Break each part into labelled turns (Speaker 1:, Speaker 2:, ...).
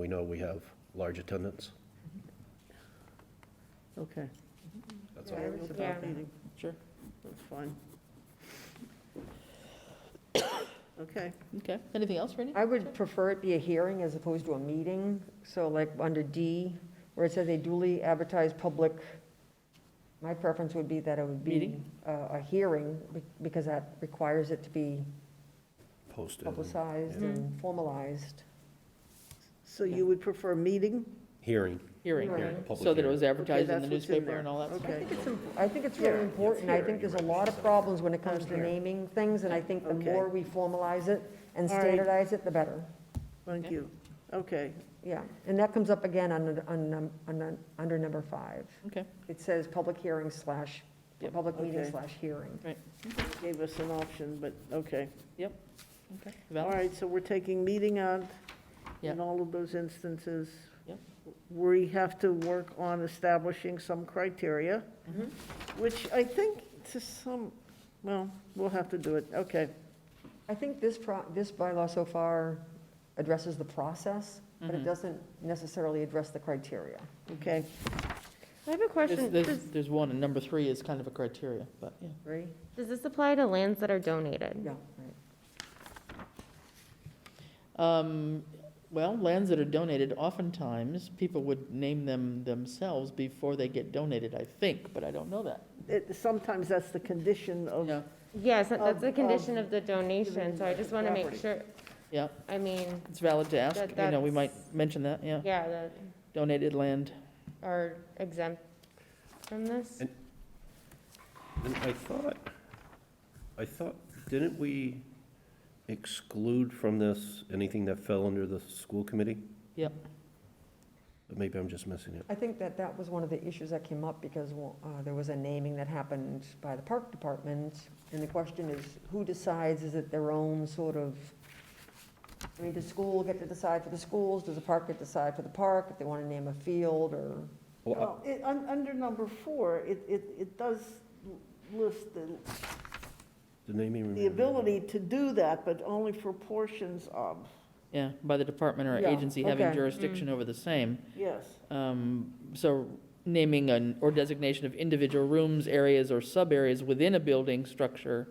Speaker 1: We know we have large attendance.
Speaker 2: Okay.
Speaker 1: That's
Speaker 2: So
Speaker 1: all.
Speaker 2: it's
Speaker 3: Yeah.
Speaker 2: about meeting. Sure, that's fine. Okay,
Speaker 4: Okay, anything else, Randy?
Speaker 3: I would prefer it be a hearing as opposed to a meeting, so like under D, where it says a duly advertised public, my preference would be that it would be
Speaker 4: Meeting?
Speaker 3: a, a hearing, be- because that requires it to be
Speaker 1: Posted. and
Speaker 3: publicized
Speaker 4: yeah.
Speaker 2: Mm-hmm.
Speaker 3: and formalized.
Speaker 2: so you would prefer meeting?
Speaker 1: Hearing.
Speaker 4: Hearing,
Speaker 3: Hearing.
Speaker 1: public
Speaker 4: so that it
Speaker 1: hearing.
Speaker 4: was advertised
Speaker 2: Okay,
Speaker 4: in the
Speaker 2: that's what's in
Speaker 4: newspaper
Speaker 2: there.
Speaker 4: and all that stuff.
Speaker 3: I
Speaker 2: Okay.
Speaker 3: think it's, im- I think it's really
Speaker 2: Hearing, it's
Speaker 3: important. I
Speaker 1: hearing,
Speaker 3: think there's a
Speaker 1: right,
Speaker 3: lot of
Speaker 1: so-
Speaker 3: problems when it comes
Speaker 2: On
Speaker 3: to
Speaker 2: here.
Speaker 3: naming things, and I think the
Speaker 2: Okay.
Speaker 3: more we formalize it and
Speaker 2: All right.
Speaker 3: standardize it, the better.
Speaker 2: Thank
Speaker 4: Okay.
Speaker 2: you. Okay,
Speaker 3: Yeah, and that comes up again on, on, num- on, num- under number five.
Speaker 4: Okay,
Speaker 3: It says public hearing slash,
Speaker 4: Yep.
Speaker 3: public meeting
Speaker 2: Okay.
Speaker 3: slash hearing.
Speaker 2: gave us an option, but, okay.
Speaker 4: okay.
Speaker 2: All
Speaker 4: Val?
Speaker 2: right, so we're taking meeting out
Speaker 4: Yeah.
Speaker 2: in all of those instances.
Speaker 4: Yep.
Speaker 2: We have to work on establishing some criteria,
Speaker 3: Mhm.
Speaker 4: Mm-hmm.
Speaker 2: which I think to some, well, we'll have to do it, okay.
Speaker 3: I think this pro, this bylaw so far addresses the process, but it
Speaker 4: Mhm.
Speaker 3: doesn't necessarily address the criteria.
Speaker 2: Okay,
Speaker 5: I have a
Speaker 4: There's,
Speaker 5: question.
Speaker 4: there's,
Speaker 5: Does-
Speaker 4: there's one, and number three is kind of a criteria, but, yeah.
Speaker 3: Right?
Speaker 5: Does this apply to lands that are donated?
Speaker 3: Yeah, right.
Speaker 4: Um, well, lands that are donated, oftentimes, people would name them themselves before they get donated, I think, but I don't know that.
Speaker 2: It- sometimes that's the condition of,
Speaker 4: Yeah,
Speaker 5: Yes, that- that's
Speaker 2: Of-
Speaker 5: a
Speaker 2: of
Speaker 5: condition of the donation, so I just want to make
Speaker 2: property.
Speaker 5: sure,
Speaker 4: yeah,
Speaker 5: I mean,
Speaker 4: it's valid to ask,
Speaker 5: That-
Speaker 4: you know, we might
Speaker 5: that's-
Speaker 4: mention that, yeah.
Speaker 5: yeah, that
Speaker 4: Donated land,
Speaker 5: are exempt from this.
Speaker 1: And- And I thought, I thought, didn't we exclude from this anything that fell under the school committee?
Speaker 4: Yep.
Speaker 1: But Maybe I'm just missing it.
Speaker 3: I think that that was one of the issues that came up because uh, there was a naming that happened by the park department. And the question is, who decides? Is it their own sort of, I mean, does school get to decide for the schools? Does the park get to decide for the park? If they want to name a field or,
Speaker 1: Well, uh,
Speaker 2: well, it, un- under number four, it, it, it does l- list the,
Speaker 1: the naming.
Speaker 2: the
Speaker 1: remember?
Speaker 2: ability to do that, but only for portions of,
Speaker 4: yeah, by the department or
Speaker 2: Yeah,
Speaker 4: agency having
Speaker 2: okay. Mm.
Speaker 4: jurisdiction over the same.
Speaker 2: yes.
Speaker 4: Um, So naming an, or designation of individual rooms, areas, or sub-areas within a building structure.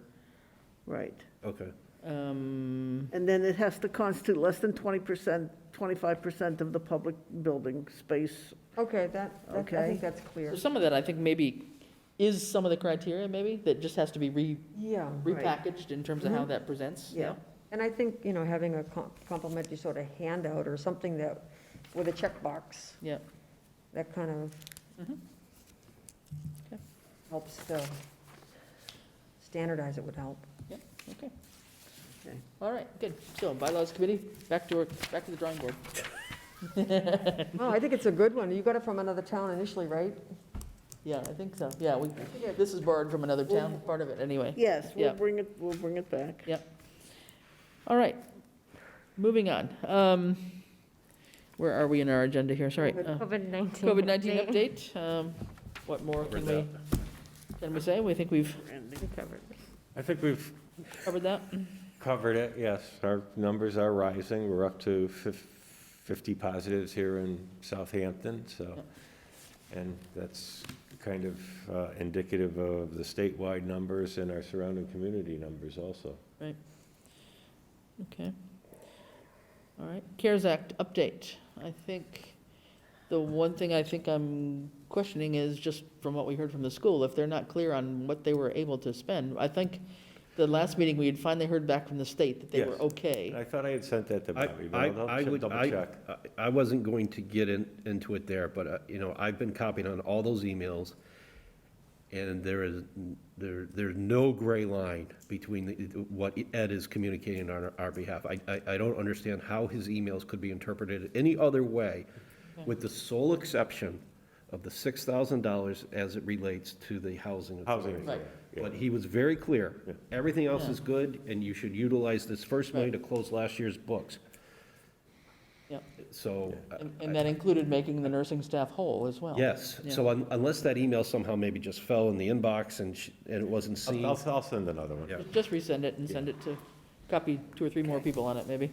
Speaker 2: Right.
Speaker 1: Okay,
Speaker 4: um,
Speaker 2: And then it has to constitute less than twenty percent, twenty-five percent of the public building space.
Speaker 3: okay, that, that- I
Speaker 2: Okay.
Speaker 3: think that's
Speaker 4: so
Speaker 3: clear.
Speaker 4: Some of that, I think, maybe is some of the criteria, maybe, that just has to be re-
Speaker 3: Yeah.
Speaker 2: Right.
Speaker 4: repackaged in terms of how
Speaker 3: Mhm.
Speaker 4: that presents.
Speaker 2: Yeah.
Speaker 3: And I think, you know, having a com- complimentary sort of handout or something that, with a checkbox.
Speaker 4: Yeah.
Speaker 3: That kind of
Speaker 4: Mhm. Okay.
Speaker 3: helps to standardize it would help.
Speaker 4: All right, good. So bylaws committee, back to, our- back to the drawing board.
Speaker 3: Well, Oh, I think it's a good one. You got it from another town initially, right?
Speaker 4: Yeah, I think so. Yeah, we, this is borrowed from another town, part of it, anyway.
Speaker 2: Yes,
Speaker 4: Yeah.
Speaker 2: we'll bring it, we'll bring it back.
Speaker 4: All right, moving on. Um, Where are we in our agenda here? Sorry. uh,
Speaker 5: COVID-19.
Speaker 4: COVID-19 update, um, what more
Speaker 1: covered
Speaker 4: can
Speaker 1: that.
Speaker 4: we, can we say? We think we've
Speaker 2: Randy.
Speaker 5: We covered it.
Speaker 6: I think we've
Speaker 4: covered that.
Speaker 6: covered it, yes. Our numbers are rising. We're up to fif- 50 positives here in Southampton, so. And that's kind of uh, indicative of the statewide numbers and our surrounding community numbers also.
Speaker 4: Okay. All right, CARES Act update. I think, the one thing I think I'm questioning is just from what we heard from the school, if they're not clear on what they were able to spend. I think the last meeting, we had finally heard back from the state that they were
Speaker 6: Yes.
Speaker 4: okay.
Speaker 6: And I thought I had sent that to
Speaker 1: I,
Speaker 6: Bobby,
Speaker 1: I,
Speaker 6: but I'll
Speaker 1: I
Speaker 6: ch-
Speaker 1: would,
Speaker 6: double
Speaker 1: I,
Speaker 6: check.
Speaker 1: I- I wasn't going to get in, into it there, but, uh, you know, I've been copied on all those emails, and there is, n- there, there's no gray line between the- what Ed is communicating on our- our behalf. I, I, I don't understand how his emails could be interpreted any other way, with the sole exception of the six thousand dollars as it relates to the housing.
Speaker 6: Housing.
Speaker 1: authority.
Speaker 4: Right.
Speaker 6: yeah.
Speaker 1: But he was very clear, everything else
Speaker 4: Yeah.
Speaker 1: is good, and you should utilize this first money to close last year's books.
Speaker 4: Yep.
Speaker 1: So, uh,
Speaker 4: And-
Speaker 1: I-
Speaker 4: And that included making the nursing staff whole as well.
Speaker 1: yes, so un- unless that email somehow maybe just fell in the inbox and, sh- and it wasn't
Speaker 6: I'll,
Speaker 1: seen,
Speaker 6: I'll- I'll send another one.
Speaker 1: Yeah.
Speaker 4: Just resend it and send it to copy two or three more people on it, maybe.